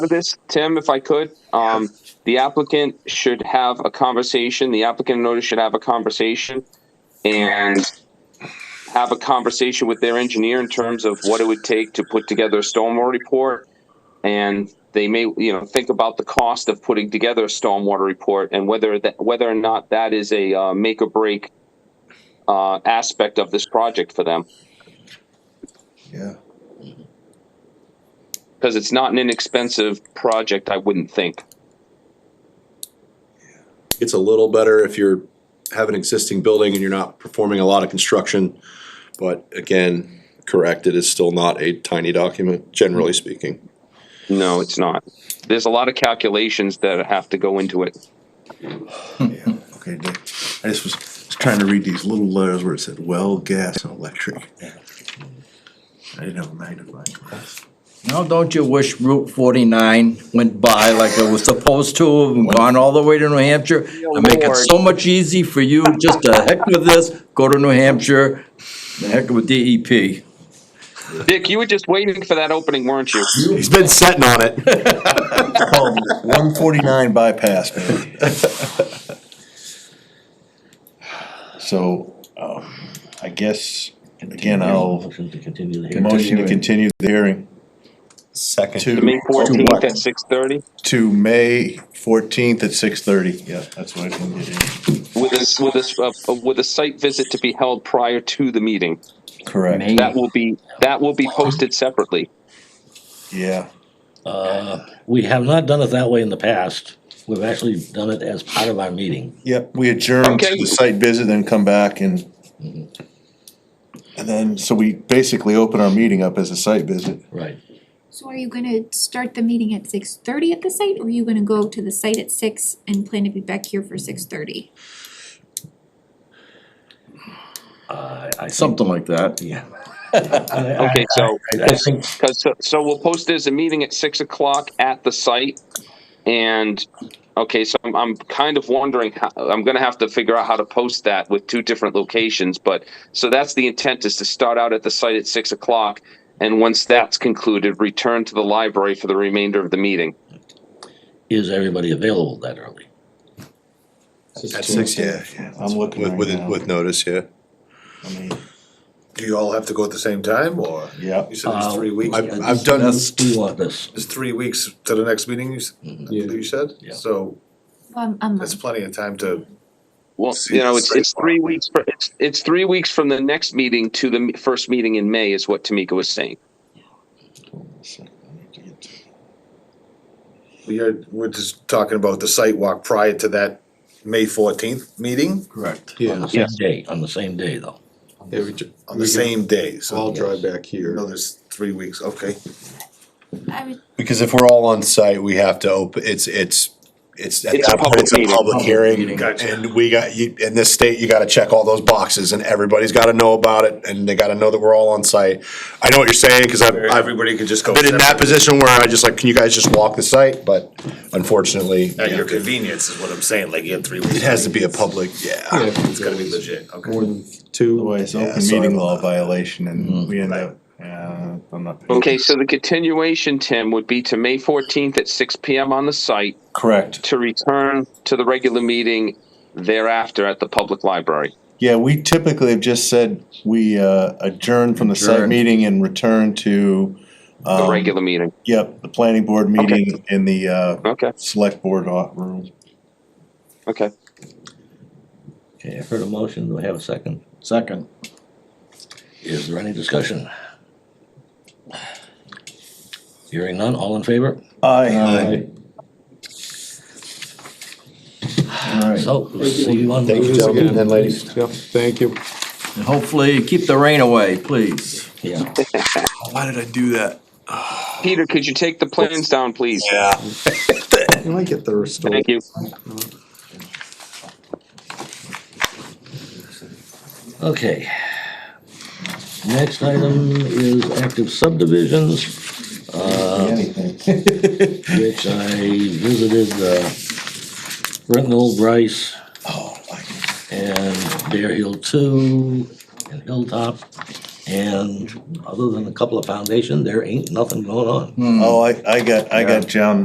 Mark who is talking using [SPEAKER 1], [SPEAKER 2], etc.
[SPEAKER 1] of this, Tim, if I could. Um, the applicant should have a conversation, the applicant notice should have a conversation and have a conversation with their engineer in terms of what it would take to put together a stormwater report. And they may, you know, think about the cost of putting together a stormwater report and whether that, whether or not that is a, uh, make or break uh, aspect of this project for them.
[SPEAKER 2] Yeah.
[SPEAKER 1] Because it's not an inexpensive project, I wouldn't think.
[SPEAKER 3] It's a little better if you're, have an existing building and you're not performing a lot of construction. But again, correct, it is still not a tiny document, generally speaking.
[SPEAKER 1] No, it's not. There's a lot of calculations that have to go into it.
[SPEAKER 4] Hmm.
[SPEAKER 2] Yeah, okay, Dick. I just was, was trying to read these little letters where it said well, gas, and electric. I didn't have a magnifying glass.
[SPEAKER 5] Now, don't you wish Route forty-nine went by like it was supposed to, and gone all the way to New Hampshire? And make it so much easy for you, just to heck with this, go to New Hampshire, the heck with E DEP.
[SPEAKER 1] Dick, you were just waiting for that opening, weren't you?
[SPEAKER 3] He's been sitting on it.
[SPEAKER 2] One forty-nine bypass, man.
[SPEAKER 4] So, um, I guess, again, I'll
[SPEAKER 6] Motion to continue the hearing.
[SPEAKER 4] motion to continue the hearing
[SPEAKER 3] Second.
[SPEAKER 4] to.
[SPEAKER 1] May
[SPEAKER 4] to
[SPEAKER 1] fourteenth
[SPEAKER 4] what?
[SPEAKER 1] at six thirty
[SPEAKER 4] To May fourteenth at six thirty, yeah, that's what I can get in.
[SPEAKER 1] with a, with a, uh, with a site visit to be held prior to the meeting.
[SPEAKER 4] Correct,
[SPEAKER 6] May,
[SPEAKER 1] That will be, that will be posted separately.
[SPEAKER 4] yeah,
[SPEAKER 6] we have not done it that way in the past. We've actually done it as part of our meeting.
[SPEAKER 4] yep, we adjourn to
[SPEAKER 1] Okay.
[SPEAKER 4] the site visit, then come back and. And then, so we basically open our meeting up as a site visit.
[SPEAKER 6] Right.
[SPEAKER 7] So are you gonna start the meeting at six thirty at the site, or are you gonna go to the site at six and plan to be back here for six thirty?
[SPEAKER 6] I, I think,
[SPEAKER 5] Something like that.
[SPEAKER 6] yeah.
[SPEAKER 1] Okay, so,
[SPEAKER 6] I I think,
[SPEAKER 1] cause, so- so we'll post it as a meeting at six o'clock at the site. And, okay, so I'm, I'm kind of wondering, how- I'm gonna have to figure out how to post that with two different locations, but, so that's the intent is to start out at the site at six o'clock. And once that's concluded, return to the library for the remainder of the meeting.
[SPEAKER 6] is everybody available that early?
[SPEAKER 4] At six, yeah, yeah, I'm looking
[SPEAKER 3] With,
[SPEAKER 4] right
[SPEAKER 3] with,
[SPEAKER 4] now.
[SPEAKER 3] with notice, yeah.
[SPEAKER 4] I mean,
[SPEAKER 8] Do you all have to go at the same time, or?
[SPEAKER 4] Yeah.
[SPEAKER 8] You said
[SPEAKER 6] Uh,
[SPEAKER 9] Uh,
[SPEAKER 8] it's three weeks,
[SPEAKER 3] I've, I've done,
[SPEAKER 6] That's, we want this.
[SPEAKER 8] it's three weeks to the next meeting, you, s- I believe you said?
[SPEAKER 6] Yeah.
[SPEAKER 8] So
[SPEAKER 7] Um, a
[SPEAKER 8] that's
[SPEAKER 7] month,
[SPEAKER 8] plenty of time to,
[SPEAKER 1] Well,
[SPEAKER 8] See,
[SPEAKER 1] you know, it's,
[SPEAKER 8] it's
[SPEAKER 1] it's three weeks, fr- it's, it's three weeks from the next meeting to the m- first meeting in May is what Tamika was saying.
[SPEAKER 8] we're, we're just talking about the site walk prior to that May fourteenth meeting
[SPEAKER 5] Correct.
[SPEAKER 6] On
[SPEAKER 9] Yeah,
[SPEAKER 6] the same
[SPEAKER 1] Yes.
[SPEAKER 6] day, on the same day though.
[SPEAKER 9] yeah, we ju-
[SPEAKER 8] on
[SPEAKER 9] we
[SPEAKER 8] the
[SPEAKER 9] can
[SPEAKER 8] same day,
[SPEAKER 9] All
[SPEAKER 8] so
[SPEAKER 9] drive back
[SPEAKER 8] you
[SPEAKER 9] here.
[SPEAKER 8] know, there's three weeks, okay.
[SPEAKER 7] I would,
[SPEAKER 3] because if we're all on site, we have to open, it's, it's, it's. at
[SPEAKER 1] It's a
[SPEAKER 3] that point,
[SPEAKER 1] public
[SPEAKER 3] It's a
[SPEAKER 1] meeting.
[SPEAKER 3] public hearing.
[SPEAKER 8] Gotcha.
[SPEAKER 3] And we got, you, in this state, you gotta check all those boxes and everybody's gotta know about it and they gotta know that we're all on site. I know what you're saying, cause I've, I've
[SPEAKER 8] Everybody could just go.
[SPEAKER 3] been in that
[SPEAKER 8] separate.
[SPEAKER 3] position where I just like, can you guys just walk the site? But unfortunately,
[SPEAKER 8] At your
[SPEAKER 3] it
[SPEAKER 8] convenience is what I'm saying, like you have three weeks.
[SPEAKER 3] has to be a public, yeah.
[SPEAKER 8] It's gotta be legit, okay.
[SPEAKER 9] More than two.
[SPEAKER 4] otherwise,
[SPEAKER 3] Yeah,
[SPEAKER 4] open
[SPEAKER 3] sorry
[SPEAKER 4] meeting
[SPEAKER 3] about
[SPEAKER 4] law
[SPEAKER 3] that.
[SPEAKER 4] violation and we end
[SPEAKER 8] Right.
[SPEAKER 4] up, yeah, I'm not.
[SPEAKER 1] Okay, so the continuation, Tim, would be to May fourteenth at six PM on the site
[SPEAKER 4] Correct.
[SPEAKER 1] to return to the regular meeting thereafter at the public library.
[SPEAKER 4] Yeah, we typically have just said we uh, adjourn from the site
[SPEAKER 5] Adjourn.
[SPEAKER 4] meeting and return to,
[SPEAKER 1] The
[SPEAKER 4] um,
[SPEAKER 1] regular meeting,
[SPEAKER 4] yep, the planning board meeting in the uh,
[SPEAKER 1] okay,
[SPEAKER 4] select board au- room.
[SPEAKER 1] okay.
[SPEAKER 6] Okay, I've heard a motion. Do we have a second?
[SPEAKER 5] Second.
[SPEAKER 6] Is there any discussion? Hearing none, all in favor?
[SPEAKER 4] Aye.
[SPEAKER 5] Alright,
[SPEAKER 6] So, we'll see you on.
[SPEAKER 3] Thank you, gentlemen and ladies.
[SPEAKER 9] Yep, thank you.
[SPEAKER 5] and hopefully keep the rain away, please.
[SPEAKER 6] Yeah,
[SPEAKER 2] Why did I do that?
[SPEAKER 1] Peter, could you take the plans down, please?
[SPEAKER 9] You might get the restore.
[SPEAKER 1] Thank you.
[SPEAKER 6] okay. Next item is active subdivisions.
[SPEAKER 4] Anything.
[SPEAKER 6] which I visited, uh, Brittenell, Bryce,
[SPEAKER 4] Oh, I-
[SPEAKER 6] and Bear Hill Two, and Hilltop, And other than a couple of foundation, there ain't nothing going on.
[SPEAKER 4] Oh, I, I got, I got John